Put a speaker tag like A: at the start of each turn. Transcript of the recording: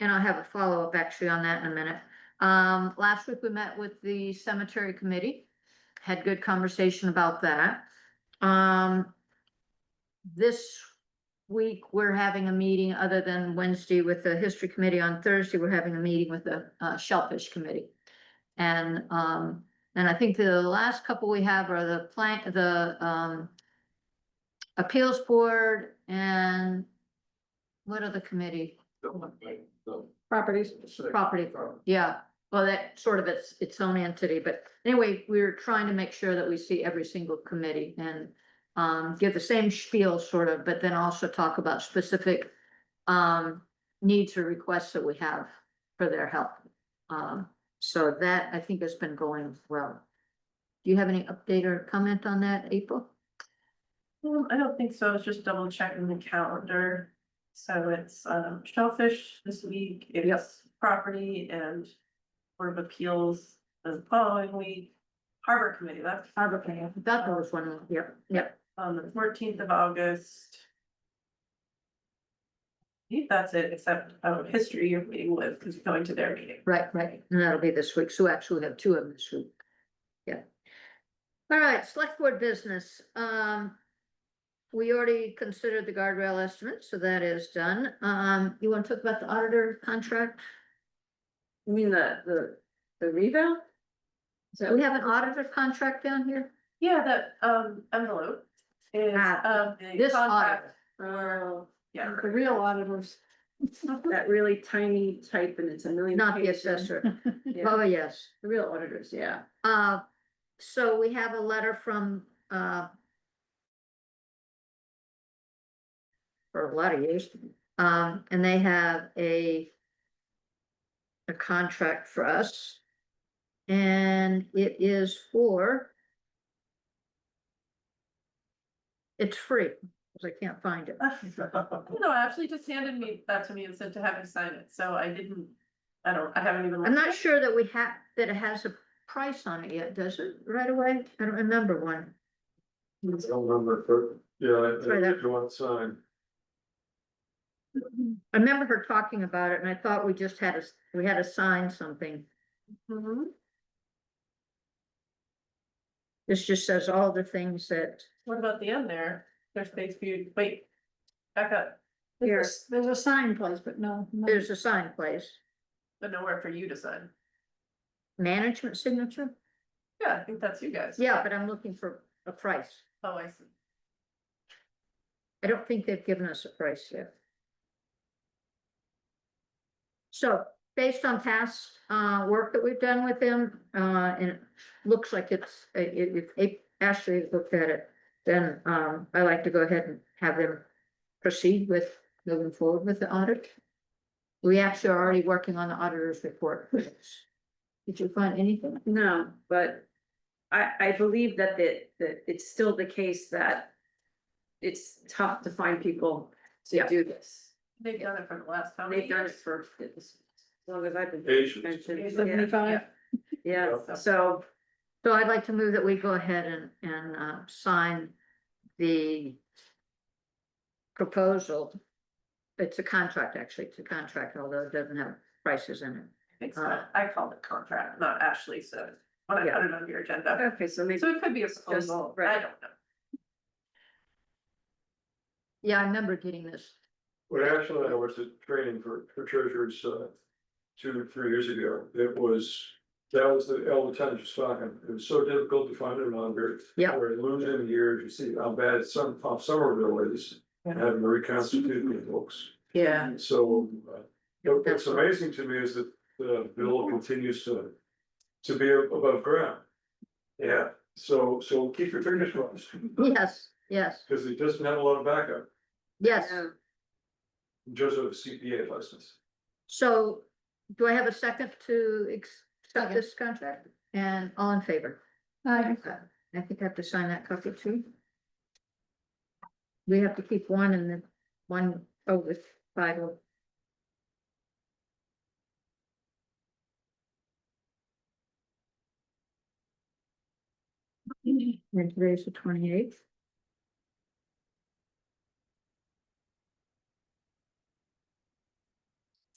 A: And I'll have a follow-up actually on that in a minute. Um, last week we met with the cemetery committee, had good conversation about that. Um, this week, we're having a meeting other than Wednesday with the history committee. On Thursday, we're having a meeting with the uh, shellfish committee. And, um, and I think the last couple we have are the plant, the, um, appeals board and what other committee?
B: Um,
C: Properties.
A: Property, yeah, well, that sort of its, its own entity, but anyway, we're trying to make sure that we see every single committee and um, give the same spiel sort of, but then also talk about specific um, needs or requests that we have for their help. Um, so that I think has been going well. Do you have any update or comment on that, April?
B: Um, I don't think so, I was just double checking the calendar. So it's um shellfish this week, it's property and Board of Appeals the following week. Harbor Committee, that's
A: Harbor Committee. That was one, yep, yep,
B: on the fourteenth of August. I think that's it, except um history you're meeting with, because you're going to their meeting.
A: right, right, and that'll be this week, so actually we have two of them this week. Yeah. All right, select board business, um. We already considered the guardrail estimate, so that is done. Um, you wanna talk about the auditor contract?
C: You mean the, the, the revale?
A: Do we have an auditor contract down here?
B: Yeah, that um envelope is
A: Ah,
B: um the
A: This
B: contract,
A: auditor,
C: Oh,
B: yeah,
C: the real auditors. That really tiny type and it's a million.
A: not the
C: pages.
A: assessor.
C: Yeah,
A: Oh, yes.
C: the real auditors, yeah.
A: Uh, so we have a letter from, uh, for a lot of years, um, and they have a a contract for us. And it is for it's free, because I can't find
B: Uh-huh.
A: it.
B: No, Ashley just handed me that to me and said to have him sign it, so I didn't, I don't, I haven't even.
A: I'm
B: looked
A: not
B: at it.
A: sure that we have, that it has a price on it yet, does it, right away? I don't remember one.
D: I don't remember, but, yeah,
A: Try
D: I- I
A: that.
D: did one sign.
A: I remember her talking about it and I thought we just had a, we had to sign something.
B: Mhm.
A: This just says all the things that,
B: What about the end there? There's space for you, wait, back up,
C: There's, there's a sign place, but no.
A: there's a sign place,
B: but nowhere for you to sign.
A: management signature?
B: Yeah, I think that's you guys.
A: Yeah, but I'm looking for a price.
B: Oh, I see.
A: I don't think they've given us a price yet. So based on past uh work that we've done with them, uh and it looks like it's, uh, it it- if Ashley looked at it. Then um I like to go ahead and have them proceed with moving forward with the audit. We actually are already working on the auditor's report. Did you find anything?
C: No, but I, I believe that the, that it's still the case that it's tough to find people to
A: Yeah.
C: do this.
B: They've done it for the last time.
C: They've done it for, as long as I've been.
D: Asians,
C: Yeah, Yeah, so.
A: So I'd like to move that we go ahead and, and, uh, sign the proposal. It's a contract, actually, it's a contract, although it doesn't have prices in it.
B: I think so. Uh, I called it contract, not Ashley, so when I
A: Yeah.
B: put it on your agenda.
C: Okay, so maybe,
B: So it could be a proposal, I
C: right.
B: don't know.
A: Yeah, I remember getting this.
D: what actually I was at training for, for treasurers, uh, two, or three years ago, it was. That was the elder time just talking, it was so difficult to find an auditor.
A: Yeah.
D: We're losing years, you see how bad some, how Somerville is, and having to reconstitute the books.
C: yeah,
D: So, uh, what- what's
A: That's right.
D: amazing to me is that the bill continues to, to be above ground. Yeah, so, so keep your fingers crossed,
A: Yes, yes,
D: because it doesn't have a lot of backup,
A: yes.
D: just a CPA license.
A: So do I have a second to ex- accept this contract? And all in favor?
C: Aye.
A: Okay. I think I have to sign that copy too. We have to keep one and then one over five. oh. And today's the twenty eighth.